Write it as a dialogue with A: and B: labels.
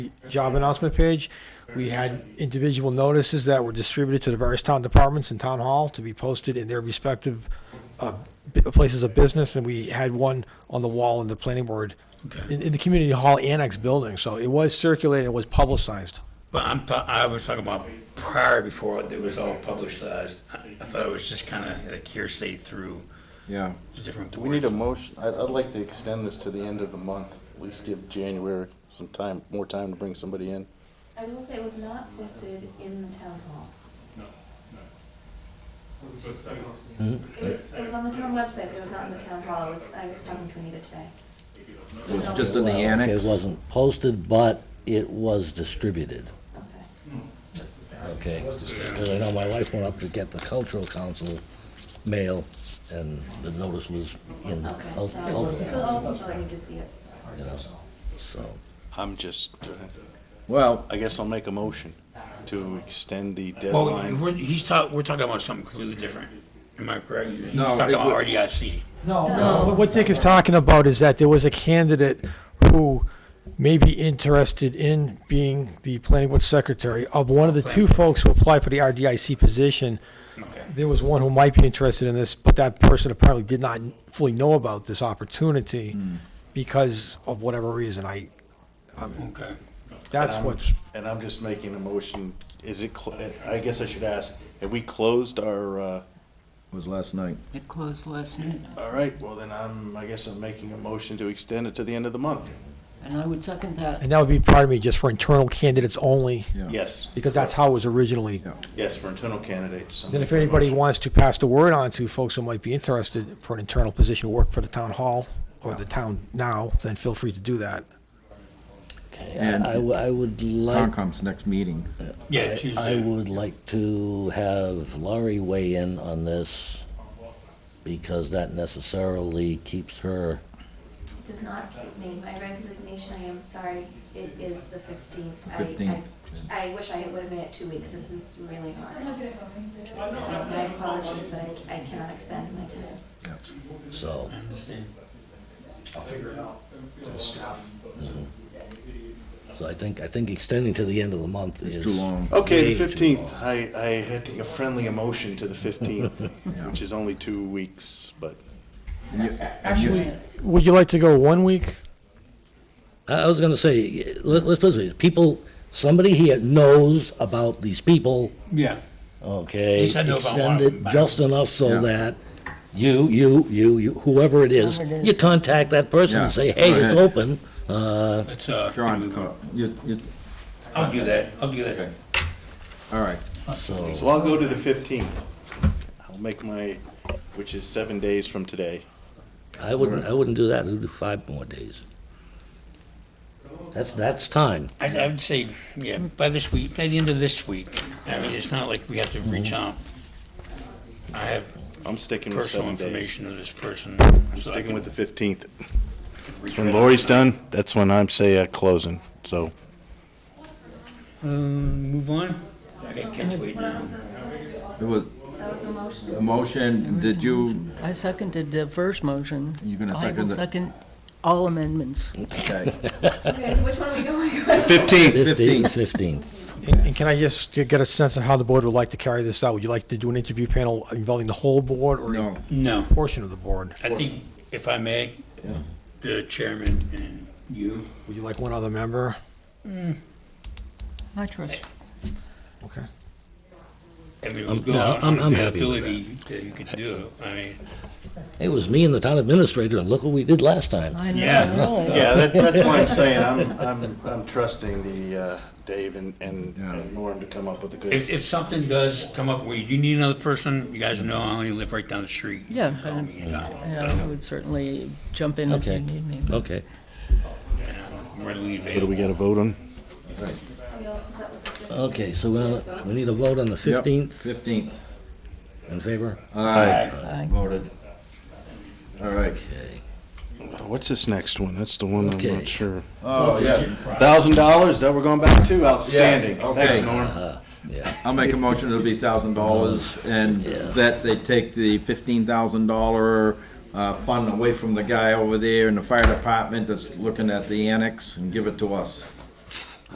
A: job announcement page. We had individual notices that were distributed to the various town departments and town hall to be posted in their respective uh, bu- places of business, and we had one on the wall in the planning board, in, in the community hall annex building, so it was circulated, it was publicized.
B: But I'm, ta- I was talking about prior before it was all publicized. I I thought it was just kind of like hearsay through
C: Yeah.
B: the different.
D: Do we need a
B: boards.
D: motion? I- I'd like to extend this to the end of the month, at least give January some time, more time to bring somebody in.
E: I will say it was not posted in the town hall.
C: Hmm?
E: It was, it was on the town website, but it was not in the town hall. I was, I was talking to Anita today.
C: It was just in the
F: Well,
C: annex.
F: It wasn't posted, but it was distributed,
E: Okay.
F: okay? Because I know my wife went up to get the cultural council mail, and the notice was in the
E: Okay,
F: cul-
E: so,
F: cultural,
E: so
F: council,
E: all people that need to see it.
F: you know, so.
D: I'm just,
C: Well,
D: I guess I'll make a motion to extend the
B: Well,
D: deadline.
B: we're, he's talk, we're talking about something completely different. Am I correct? He's
C: No,
B: talking
C: it
B: about
C: would-
B: RDIC.
A: No, no. What Dick is talking about is that there was a candidate who may be interested in being the planning board secretary of one of the two folks who applied for the RDIC position.
B: Okay.
A: There was one who might be interested in this, but that person apparently did not fully know about this opportunity
C: Hmm.
A: because of whatever reason. I,
B: Okay.
A: that's
C: um,
A: what's,
D: And I'm just making a motion, is it, cl- I guess I should ask, have we closed our, uh,
C: it was last night.
G: It closed last night,
D: all right, well then I'm, I guess I'm making a motion to extend it to the end of the month.
G: and I would second that.
A: and that would be, pardon me, just for internal candidates only,
C: Yeah.
D: Yes,
A: because that's how it was originally.
C: Yeah.
D: yes, for internal candidates.
A: Then if anybody wants to pass the word on to folks who might be interested for an internal position, who work for the town hall or the town now, then feel free to do that.
F: okay,
C: And-
F: I, I w- I would like,
C: Concom's next meeting.
B: Yeah,
F: I- I
B: Tuesday.
F: would like to have Laurie weigh in on this, because that necessarily keeps her,
E: It does not keep me. My resignation, I am sorry, it is the fifteenth. I,
C: 15th,
E: I, I wish I would have made it two weeks. This is really hard. So my apologies, but I, I cannot extend my time.
F: so.
B: I understand.
F: So I think, I think extending to the end of the month is.
C: It's too long.
D: Okay,
F: way
D: the
F: too
D: fifteenth.
F: long.
D: I, I had to give friendly emotion to the fifteenth, which is only two weeks, but
A: Actually, would you like to go one week?
F: I I was gonna say, let, let's put it this way, people, somebody here knows about these people,
B: Yeah.
F: okay?
B: He said no about one of
F: Extend
B: them,
F: it
B: but-
F: just enough
C: Yeah.
F: so that you, you, you, you, whoever it is,
G: Whoever it is.
F: you contact that person and
C: Yeah,
F: say, hey,
C: go
F: it's
C: ahead.
F: open. Uh,
B: It's, uh,
C: John, uh, you, you,
B: I'll do that. I'll do
C: okay.
B: that.
C: All right.
F: so,
D: so I'll go to the fifteenth. I'll make my, which is seven days from today.
F: I wouldn't, I wouldn't do that, I'd do five more days. That's, that's time.
B: I, I would say, yeah, by this week, by the end of this week. I mean, it's not like we have to
D: Mm-hmm.
B: reach out. I have
D: I'm sticking with
B: personal
D: seven days.
B: information of this person.
D: I'm sticking with the fifteenth.
B: reach
D: When
B: right
D: Lori's
B: out.
D: done, that's when I'm say uh, closing. So
B: Um, move on. I got catch weight now.
C: It was
E: That was the motion.
C: a motion. Did you,
G: I seconded the first motion.
C: You're gonna
G: I
C: second
G: will
C: the-
G: second all amendments.
C: okay.
E: Okay, so which one are we going with?
D: fifteenth.
C: Fifteenth.
F: Fifteenth, fifteenth.
A: And and can I just get a sense of how the board would like to carry this out? Would you like to do an interview panel involving the whole board or a
C: No.
B: No.
A: portion of the board?
B: I think, if I may, the chairman and you,
A: Would you like one other member?
G: I trust.
A: Okay.
B: I mean, we'll
F: I'm-
B: go
F: no,
B: out
F: I'm-
B: on
F: I'm happy with
B: availability that you could do. it. I mean,
F: It was me and the town administrator, and look what we did last time.
G: I know,
B: Yeah.
G: I know.
D: Yeah, that, that's why I'm saying I'm I'm I'm trusting the uh, Dave and and,
C: Yeah.
D: and Norm to come up with a good.
B: if, if something does come up where you do need another person, you guys know I only live right down the street.
G: Yeah.
B: Call me, you know,
G: Yeah, I would certainly jump in if you
F: Okay,
G: need me.
F: okay.
B: I'm readily
D: what do
B: available.
D: we got to vote on?
E: We all set with the different-
F: Okay, so we'll- we need a vote on the 15th.
C: Fifteenth.
F: In favor?
C: Aye.
G: Aye.
C: Voted. All right.
F: Okay.
D: What's this next one? That's the one I'm
F: Okay.
D: not sure.
C: Oh, yeah.
D: Thousand dollars, that we're going back to, outstanding.
C: Yes, okay.
D: Thanks, Norm.
F: Uh, Yeah,
C: I'll make a motion, it'll be thousand dollars, and that they take the fifteen thousand dollar, uh, fund away from the guy over there in the fire department that's looking at the annex and give it to us.